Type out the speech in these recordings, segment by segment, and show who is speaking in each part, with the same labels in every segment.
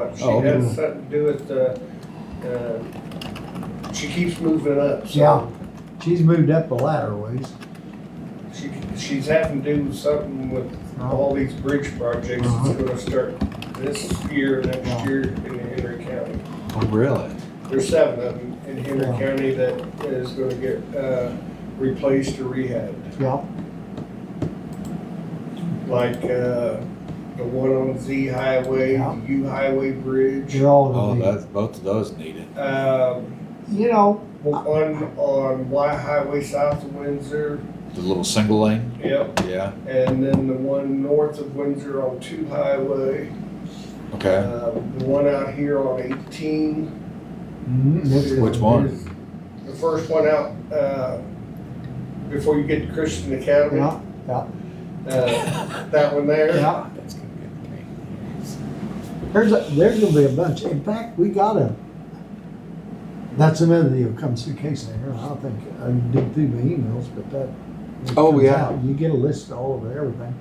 Speaker 1: up. She
Speaker 2: Oh, okay.
Speaker 1: has something to do with, uh, uh, she keeps moving up,
Speaker 2: Yeah.
Speaker 1: so.
Speaker 2: She's moved up the ladder ways.
Speaker 1: She, she's having to do something with all these bridge projects
Speaker 2: Uh-huh.
Speaker 1: that's gonna start this year, next
Speaker 2: Yeah.
Speaker 1: year in Henry County.
Speaker 3: Oh, really?
Speaker 1: There's seven of them in Henry
Speaker 2: Yeah.
Speaker 1: County that is gonna get, uh, replaced or rehabbed.
Speaker 2: Yeah,
Speaker 1: Like, uh, the one on Z Highway,
Speaker 2: Yeah.
Speaker 1: the U Highway Bridge,
Speaker 2: they're all
Speaker 3: Oh,
Speaker 2: gonna
Speaker 3: that's, both of those needed.
Speaker 1: um,
Speaker 2: be, you know,
Speaker 1: one on Y Highway south of Windsor,
Speaker 3: The little single lane?
Speaker 1: yep,
Speaker 3: Yeah,
Speaker 1: and then the one north of Windsor on Two Highway.
Speaker 3: okay.
Speaker 1: Uh, The one out here on eighteen.
Speaker 2: mm, it's-
Speaker 3: Which one?
Speaker 1: is The first one out, uh, before you get to Christian Academy.
Speaker 2: yeah, yeah,
Speaker 1: Uh, That one there.
Speaker 2: yeah.
Speaker 3: That's gonna be a pain.
Speaker 2: There's, a- there's gonna be a bunch. In fact, we got a, that's another deal, comes through case there. I don't think, I dig through my emails, but that. it
Speaker 3: Oh,
Speaker 2: comes
Speaker 3: yeah.
Speaker 2: out. You get a list of all of everything.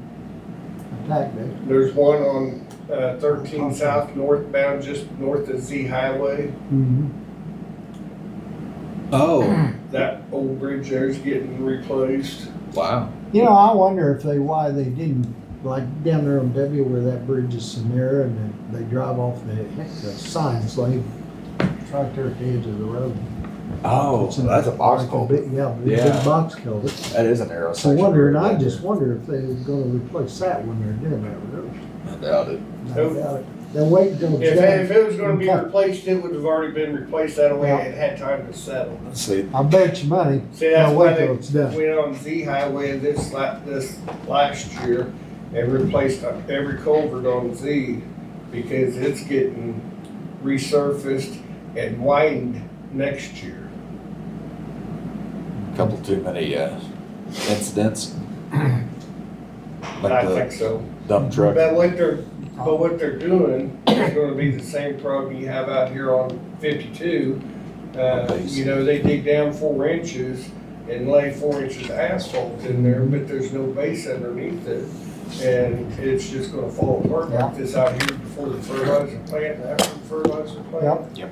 Speaker 2: Attack it.
Speaker 1: There's one on uh, thirteen south northbound, just north of Z Highway.
Speaker 3: Mm-hmm.
Speaker 2: Mhm.
Speaker 3: Oh,
Speaker 1: That old bridge there's getting replaced.
Speaker 3: wow.
Speaker 2: You know, I wonder if they, why they didn't, like down there on W where that bridge is Samara and they, they drive off the, the signs, like right there at the edge of the road.
Speaker 3: Oh,
Speaker 2: It's in-
Speaker 3: that's a box
Speaker 2: like
Speaker 3: culvert.
Speaker 2: big- Yeah, big
Speaker 3: Yeah.
Speaker 2: big box culvert.
Speaker 3: That is an arrow
Speaker 2: So
Speaker 3: section.
Speaker 2: wondering, I just wonder if they're gonna replace that when they're doing that road.
Speaker 3: I doubt it.
Speaker 2: No doubt it. They're waiting till
Speaker 1: If, if
Speaker 2: January.
Speaker 1: it was gonna be replaced, it would have already been replaced. That way it had time to settle.
Speaker 3: Let's see,
Speaker 2: I bet you money,
Speaker 1: See, that's
Speaker 2: they'll
Speaker 1: why
Speaker 2: wait
Speaker 1: they
Speaker 2: till it's done.
Speaker 1: went on Z Highway this la- this last year and replaced uh, every culvert on Z because it's getting resurfaced and widened next year.
Speaker 3: a couple too many, uh, incidents. Like
Speaker 1: I
Speaker 3: the
Speaker 1: think so.
Speaker 3: dump truck.
Speaker 1: But what they're, but what they're doing is gonna be the same problem you have out here on fifty-two. Uh,
Speaker 3: Okay.
Speaker 1: you know, they dig down four inches and lay four inches of asphalt in there, but there's no base underneath it. And it's just gonna fall apart like this out here before the fertilizer plant, and after the fertilizer plant.
Speaker 3: Yep.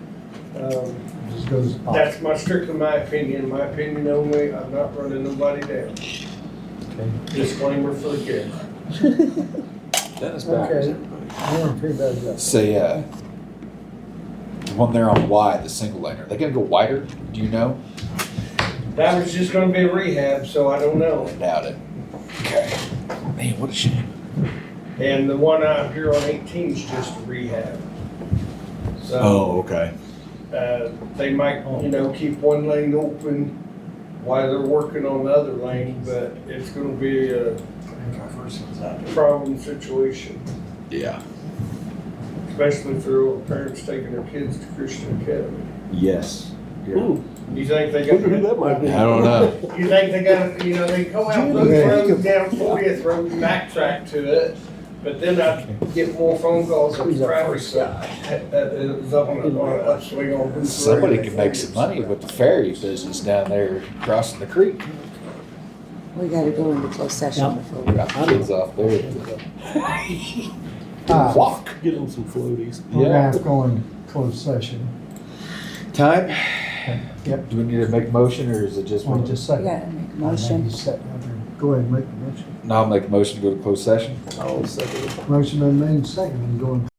Speaker 1: Um,
Speaker 2: Just goes to pop.
Speaker 1: that's my, strictly my opinion, my opinion only, I'm not running nobody down.
Speaker 2: Okay.
Speaker 1: Disclaimer for the kid.
Speaker 3: Dennis Bowers,
Speaker 2: Okay.
Speaker 3: everybody.
Speaker 2: I wonder if anybody's got-
Speaker 3: Say, uh, the one there on Y, the single lane, are they gonna go wider? Do you know?
Speaker 1: That was just gonna be a rehab, so I don't know.
Speaker 3: I doubt it. Okay. Man, what a shame.
Speaker 1: And the one out here on 18 is just a rehab. So,
Speaker 3: Oh, okay.
Speaker 1: uh, they might, you know, keep one lane open while they're working on the other lane, but it's gonna be a problem situation,
Speaker 3: Yeah.
Speaker 1: especially for parents taking their kids to Christian Academy.
Speaker 3: Yes.
Speaker 4: Ooh,
Speaker 1: You think they
Speaker 4: wonder who
Speaker 1: got,
Speaker 4: that might be.
Speaker 3: I don't know.
Speaker 1: you think they got, you know, they go out those roads down 40th Road, and backtrack to it, but then I get more phone calls on Friday, so that that is up on, on, upswing on. Booth Road.
Speaker 3: Somebody could make some money with the ferry business down there crossing the creek.
Speaker 5: We gotta go into closed session before we.
Speaker 3: Drop the kids off there.
Speaker 2: Ah,
Speaker 3: Walk.
Speaker 4: Get on some floaties.
Speaker 2: We're gonna
Speaker 3: Yeah.
Speaker 2: have to go in closed session.
Speaker 3: Time?
Speaker 2: Yep.
Speaker 3: Do we need to make a motion or is it just?
Speaker 2: One just
Speaker 5: We
Speaker 2: second.
Speaker 5: gotta make a motion.
Speaker 2: Go ahead and make the motion.
Speaker 3: No, I'll make a motion to go to closed session.
Speaker 4: I'll second it.
Speaker 2: Motion been made second and going